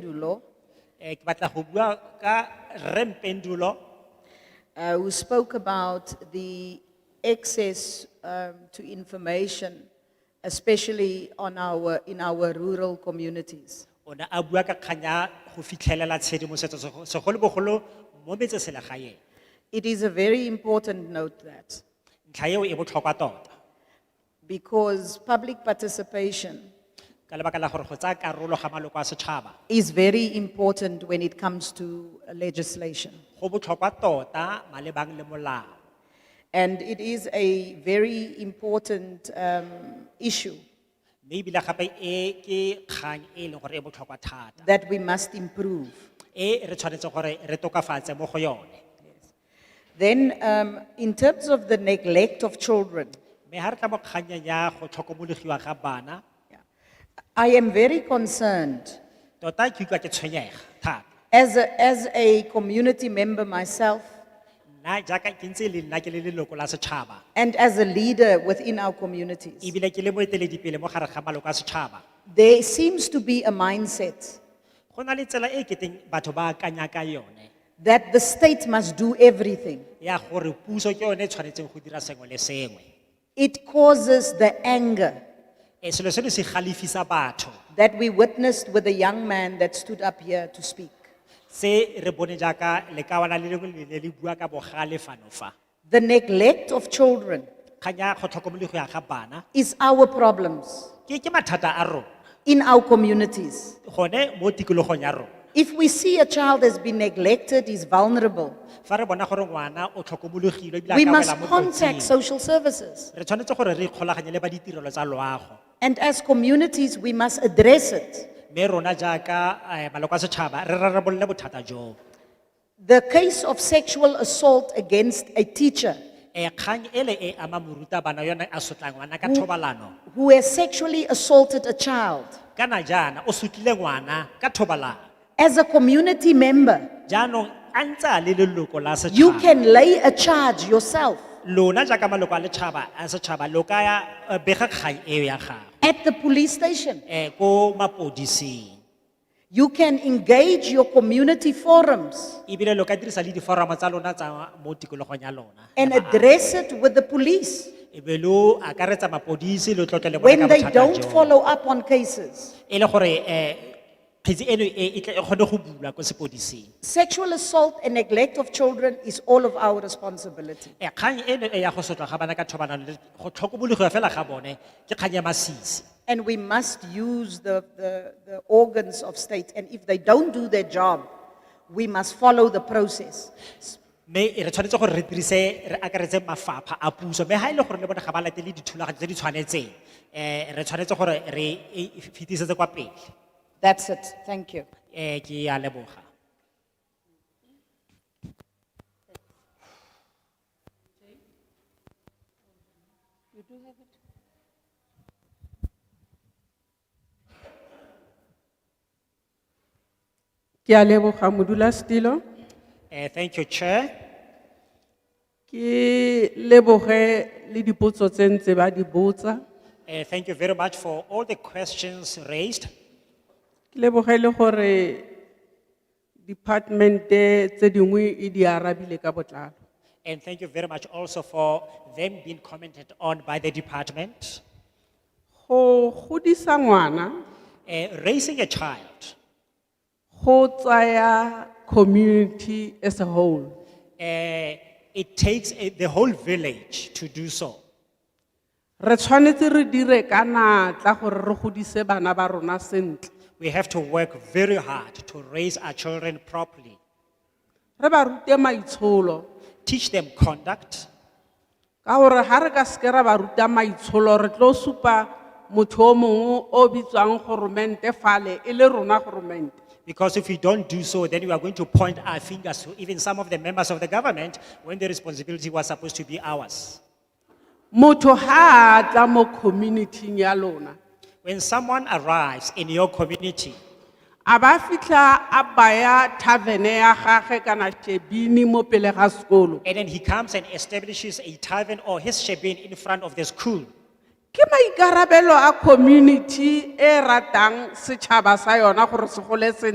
Pendulo. Eh, ke batla go bua ka rempendulo, uh, who spoke about the access um, to information, especially on our, in our rural communities. o ne a bua ka kanya go fitlhelela tshedimosetso sego- segolobogolo mo metseselegaeng. It is a very important note that, Ntlha eo e botlhokwa tota, because public participation ka lebaka la gore go tsaya karolo ga maloko a setšhaba, is very important when it comes to legislation. go botlhokwa tota malebang le molao. And it is a very important um, issue Mme ebile gape e ke kgang e leng gore e botlhokwa thata, that we must improve. e re tshwanetse gore re tokafatse mo go yone. Then, um, in terms of the neglect of children, Mme ha re tla mo kganyeng ya go tlhokomologiwa ga bana, Yeah. I am very concerned, tota ke utlwa ke tshwenyega thata. as a, as a community member myself, nna jaaka ke ntse le nna ke le leloko la setšhaba and as a leader within our communities. ebile ke le moeteledipele mo gare ga maloko a setšhaba There seems to be a mindset go na le tsela e keteng batho ba akanya ka yone that the state must do everything. ya gore puso ke yone e tshwanetseng go dira sengwe le sengwe It causes the anger e selo seno se galefisa batho that we witnessed with the young man that stood up here to speak. se re bone jaaka lekawana le lengwe le ne le bua ka bogale fano fa The neglect of children kgang ya go tlhokomolego ya ga bana is our problems ke ke mathata a rona in our communities. gone mo tikologong ya rona If we see a child has been neglected, is vulnerable, fa re bona gore ngwana o tlhokomologilwe ebile a we ka wela must mo contact kotsing, social services. re tshwanetse gore re ikgolaganye le ba ditirelo tsa loago And as communities, we must address it. Me rona jaaka eh, maloko a setšhaba re rarabolle bothata jo. The case of sexual assault against a teacher Eh, kgang ele e ama morutabana yone a sotlang ngwana ka thobalano. who has sexually assaulted a child, Kana jaana o sutlile ngwana ka thobalano. as a community member, Jaanong a ntse a le leloko la you setšhaba. can lay a charge yourself Lona jaaka maloko a letšhaba a setšhaba lo ka ya eh, bega kgang eo ya gago. at the police station. Eh, ko mapodising. You can engage your community forums Ebile lo ka dirisa le diforamo tsa lona tsa mo tikologong ya lona. e and address it with the police Ebe lo akaretsa mapodisi lo tlotle le bona ka when they bothata don't joo. follow up on cases. e le gore eh kgetse eno e e tle- e kgone go bulwa ko sepodising Sexual assault and neglect of children is all of our responsibility. Eh, kgang eno e ya go sotlwa ga bana ka thobalano le go tlhokomologiwa fela ga bone ke kgang ya masisi And we must use the, the, the organs of state. And if they don't do their job, we must follow the process. mme e re tshwanetse gore re dirise re akaretse mafapha a puso mme ga e le gore le bone ga ba latele dithulaganyo tse di tshwanetseng eh re tshwanetse gore re e fetisetse kwa pele That's it. Thank you. eh ke a leboga Ki alebo Hamudula Stilo, eh thank you chair ki lebo re li di potso tse ba di botsa, eh thank you very much for all the questions raised ki lebo re le hore departmente tse dingwe e di arabile ka botlalo. and thank you very much also for them being commented on by the department Go godisa ngwana, Eh, raising a child go tsaya community as a whole. eh, it takes eh, the whole village to do so Re tshwanetse re dire ka natla gore re godise bana ba rona sentle. we have to work very hard to raise our children properly Re ba rute maitsholo, teach them conduct ka gore ha re ka seke ra ba ruta maitsholo re tlo supa motho o mongwe o bitswang goromente fale e le rona goromente because if we don't do so then we are going to point our fingers to even some of the members of the government when the responsibility was supposed to be ours motho ha a tla mo communityng ya lona when someone arrives in your community a ba fitlha a baya tavene ya gage kana shebini mo pele ga sekolo and then he comes and establishes a tavern or his shebeen in front of the school ke maikarabelo a community e ratang setšhaba sa yona gore se gole sentle